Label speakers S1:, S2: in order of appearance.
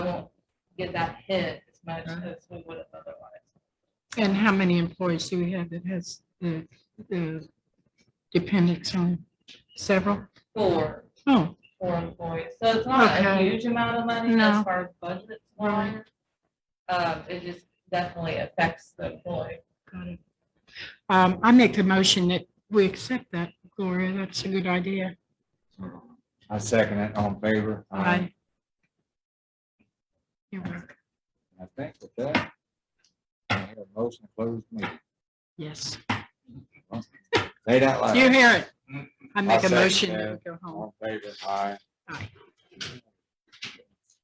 S1: get that hit as much
S2: Mhm.
S1: as we would have otherwise.
S3: And how many employees do we have that has the, the dependents on several?
S1: Four,
S3: Oh,
S1: four employees, so it's not a
S3: Okay.
S1: huge amount of money
S3: No.
S1: as far as budget's
S3: Right.
S1: wise. Um, it just definitely affects the employee.
S3: got it. Um, I make the motion that we accept that, Gloria. That's a good idea.
S2: I second it, all in favor?
S3: Aye. You're welcome.
S2: I think with that, I have a motion to close the meeting.
S3: Yes,
S2: Say that loud.
S3: you hear it. I make a
S2: Mm-hmm. second
S3: motion
S2: that.
S3: that we go home.
S2: All in favor? Aye.
S3: Aye.